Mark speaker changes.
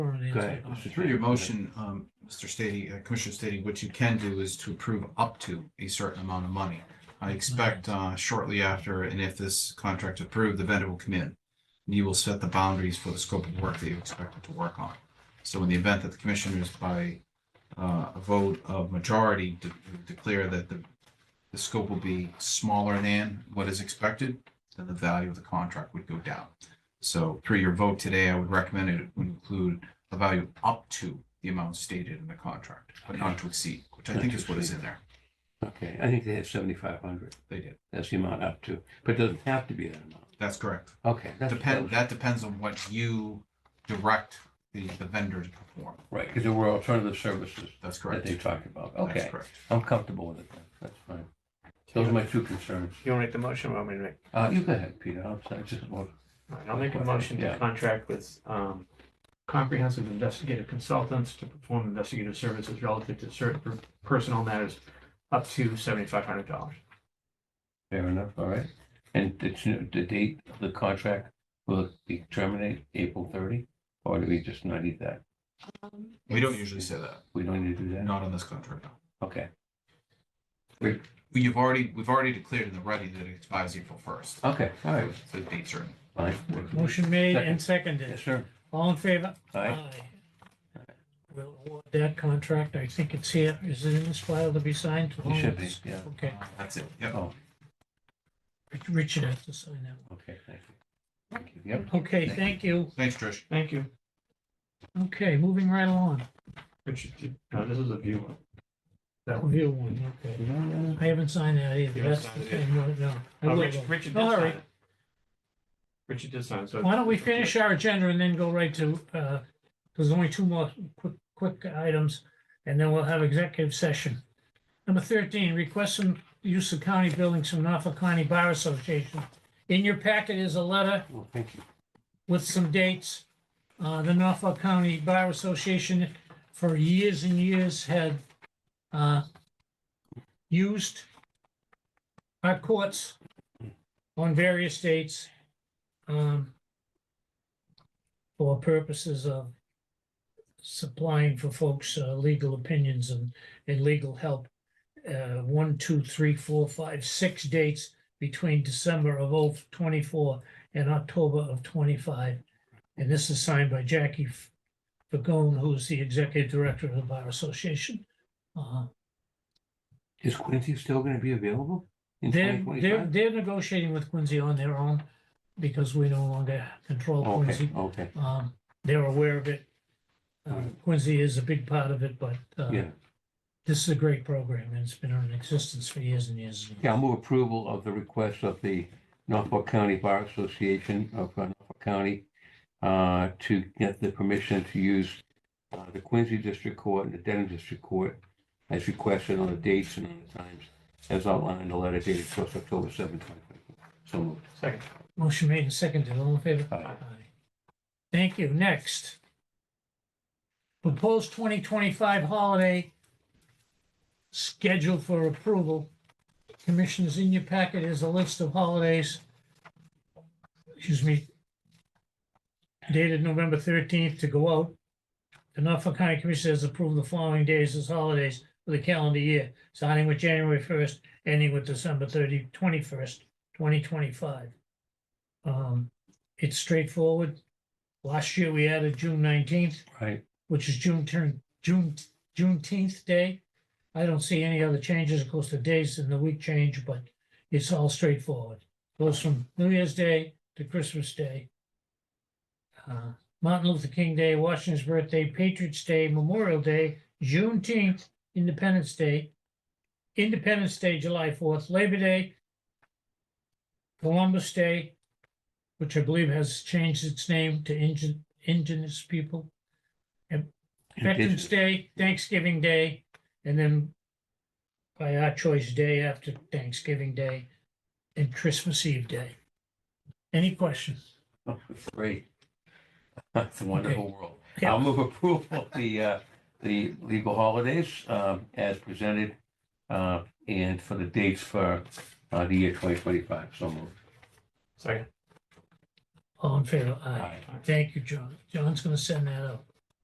Speaker 1: Or an
Speaker 2: Go
Speaker 1: answer.
Speaker 2: ahead,
Speaker 1: Oh,
Speaker 2: Mr.
Speaker 3: Through your
Speaker 2: Chairman.
Speaker 3: motion, um, Mr. Stady, uh, Commissioner Stady, what you can do is to approve up to a certain amount of money. I expect, uh, shortly after, and if this contract is approved, the vendor will come in. And you will set the boundaries for the scope of work that you expect it to work on. So in the event that the commissioners by, uh, a vote of majority de- declare that the, the scope will be smaller than what is expected, then the value of the contract would go down. So through your vote today, I would recommend it would include the value up to the amount stated in the contract, but not to exceed, which I think is what is in there.
Speaker 2: Okay, I think they have seventy-five hundred.
Speaker 3: They did.
Speaker 2: That's the amount up to, but it doesn't have to be that amount.
Speaker 3: That's correct.
Speaker 2: Okay. that's-
Speaker 3: Depend, that depends on what you direct the, the vendor to perform.
Speaker 2: Right, because there were alternative services
Speaker 3: That's
Speaker 2: that
Speaker 3: correct.
Speaker 2: they talked about.
Speaker 3: That's
Speaker 2: Okay,
Speaker 3: correct.
Speaker 2: I'm comfortable with it. then. That's fine. Those are my two concerns.
Speaker 4: You want to make the motion or want me to make?
Speaker 2: Uh, you go ahead, Peter. I'm sorry, just one.
Speaker 4: all right, I'll make a motion
Speaker 2: Yeah.
Speaker 4: to contract with um, comprehensive investigative consultants to perform investigative services relative to certain personnel matters up to seventy-five hundred dollars.
Speaker 2: Fair enough, all right. And it's, the date of the contract will be terminate April thirty? Or do we just not need that?
Speaker 3: We don't usually say that,
Speaker 2: We don't need to do that?
Speaker 3: not on this contract. no.
Speaker 2: Okay,
Speaker 3: We have already, we've already declared in the ready that it expires April first.
Speaker 2: okay, all right,
Speaker 3: The date certain.
Speaker 2: fine.
Speaker 1: Motion made
Speaker 2: Second.
Speaker 1: and
Speaker 2: Yes,
Speaker 1: seconded.
Speaker 2: sir.
Speaker 1: All in favor?
Speaker 2: Aye.
Speaker 1: We'll award that contract. I think it's here. Is it in this file to be signed?
Speaker 2: You should be, yeah.
Speaker 1: Okay,
Speaker 3: That's it. Yep.
Speaker 2: Oh,
Speaker 1: Rich- Richard has to sign that.
Speaker 2: okay, thank you. Thank you. Yep,
Speaker 1: one. Okay, thank you.
Speaker 3: Thanks, Trish.
Speaker 4: Thank you.
Speaker 1: Okay, moving right along.
Speaker 4: Richard, you- no, this is a view one. That one.
Speaker 1: Review Oh, one, okay. I haven't signed that either.
Speaker 4: You haven't
Speaker 1: That's the
Speaker 4: signed it yet.
Speaker 1: thing, no, no. I
Speaker 4: Uh,
Speaker 1: will,
Speaker 4: Rich-
Speaker 1: though.
Speaker 4: Richard
Speaker 1: Don't
Speaker 4: did sign
Speaker 1: worry.
Speaker 4: it. Richard did sign, so.
Speaker 1: Oh, Why don't we finish our agenda and then go right to, uh, there's only two more quick, quick items, and then we'll have executive session. Number thirteen, request some use of county buildings from Norfolk County Bar Association. In your packet is a letter
Speaker 2: well, thank you.
Speaker 1: with some dates. Uh, the Norfolk County Bar Association for years and years had, uh, used our courts on various dates, um, for purposes of supplying for folks, uh, legal opinions and, and legal help. Uh, one, two, three, four, five, six dates between December of oh twenty-four in October of twenty-five. And this is signed by Jackie Fagone, who's the executive director of the Bar Association. Uh,
Speaker 2: Is Quincy still gonna be available in
Speaker 1: They're,
Speaker 2: twenty
Speaker 1: they're,
Speaker 2: twenty-five?
Speaker 1: they're negotiating with Quincy on their own because we no longer control
Speaker 2: Okay,
Speaker 1: Quincy.
Speaker 2: okay,
Speaker 1: Um, They're aware of it. Uh, Quincy is a big part of it, but uh,
Speaker 2: Mm-hmm. yeah.
Speaker 1: this is a great program and it's been in existence for years and years. and years.
Speaker 2: Yeah, I'll move approval of the request of the Norfolk County Bar Association of uh, Norfolk County uh, to get the permission to use uh, the Quincy District Court and the Denham District Court as requested on the dates and on the times as outlined in the letter dated first October seventh, twenty twenty-four. So uh, moved.
Speaker 4: Second,
Speaker 1: Motion made and seconded. All in favor?
Speaker 2: Aye.
Speaker 1: Aye. Thank you. Next. Proposed twenty twenty-five holiday schedule for approval. Commissioners, in your packet is a list of holidays. Excuse me. Dated November thirteenth to go out. The Norfolk County Commission has approved the following days as holidays for the calendar year, starting with January first, ending with December 30, 21st, twenty twenty-five. Um, it's straightforward. Last year, we added June nineteenth,
Speaker 2: Right,
Speaker 1: which is June turn, June, Juneteenth day. I don't see any other changes. Of course, the days and the week change, but it's all straightforward. Goes from New Year's Day to Christmas Day. Uh, Martin Luther King Day, Washington's birthday, Patriots Day, Memorial Day, Juneteenth, Independence Day, Independence Day, July fourth, Labor Day, Columbus Day, which I believe has changed its name to Ingen- Indigenous People. And Veterans
Speaker 2: Indigenous.
Speaker 1: Day, Thanksgiving Day, and then by our choice, day after Thanksgiving Day and Christmas Eve Day. Any questions?
Speaker 2: Oh, great. That's a wonderful world.
Speaker 1: Yeah.
Speaker 2: I'll move approval of the, uh, the legal holidays, um, as presented, uh, and for the dates for, uh, the year twenty twenty-five, so moved.
Speaker 4: second.
Speaker 1: All in favor? Aye.
Speaker 2: Aye.
Speaker 1: Thank you, John. John's gonna send that out.